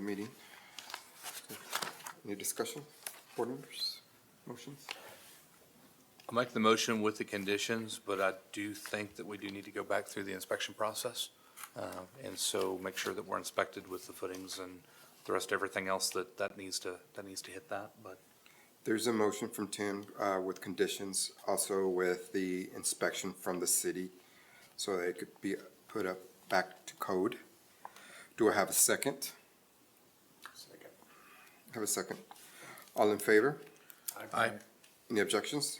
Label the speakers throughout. Speaker 1: meeting. Any discussion, board members, motions?
Speaker 2: I'll make the motion with the conditions, but I do think that we do need to go back through the inspection process. uh, And so make sure that we're inspected with the footings and the rest, everything else that, that needs to, that needs to hit that, but
Speaker 1: There's a motion from Tim uh, with conditions, also with the inspection from the city, so that it could be put up back to code. Do I have a second? Have a second. All in favor?
Speaker 2: Aye.
Speaker 1: Any objections?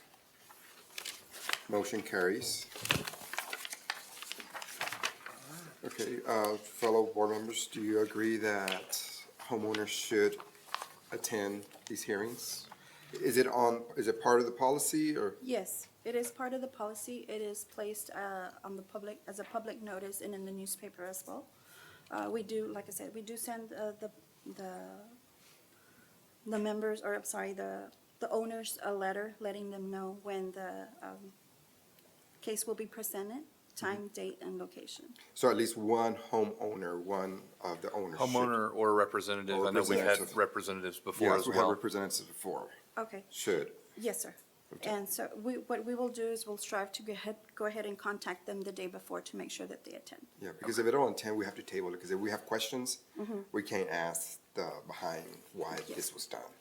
Speaker 1: Motion carries. Okay, uh, fellow board members, do you agree that homeowners should attend these hearings? Is it on, is it part of the policy or,
Speaker 3: Yes, it is part of the policy. It is placed uh, on the public, as a public notice and in the newspaper as well. Uh, We do, like I said, we do send uh, the, the, the members, or I'm sorry, the, the owners a letter letting them know when the um, case will be presented, time,
Speaker 1: Mm-hmm.
Speaker 3: date, and location.
Speaker 1: so at least one homeowner, one of the owners? should-
Speaker 2: homeowner or representative,
Speaker 1: Or
Speaker 2: I know we've had
Speaker 1: representative.
Speaker 2: representatives before
Speaker 1: Yes,
Speaker 2: as
Speaker 1: we had
Speaker 2: well.
Speaker 1: representatives before,
Speaker 3: Okay,
Speaker 1: should.
Speaker 3: yes, sir. And so we, what we will do is we'll strive to go ahead, go ahead and contact them the day before to make sure that they attend.
Speaker 1: Yeah, because if it don't attend, we have to table it, because if we have questions, we can't ask the behind why
Speaker 3: Yeah.
Speaker 1: this was done.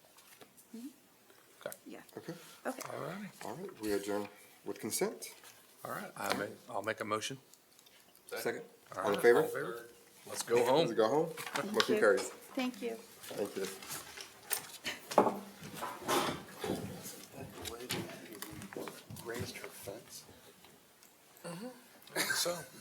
Speaker 3: Yeah,
Speaker 1: Okay,
Speaker 3: okay.
Speaker 2: All righty,
Speaker 1: all right, we adjourn with consent.
Speaker 2: all right, I may, I'll make a motion.
Speaker 1: Second.
Speaker 2: All
Speaker 1: All in favor?
Speaker 2: right. Let's go home.
Speaker 1: Let's Go home. Motion
Speaker 3: you.
Speaker 1: carries.
Speaker 3: Thank you.
Speaker 1: Thank you.
Speaker 4: Raised her fence?
Speaker 2: So.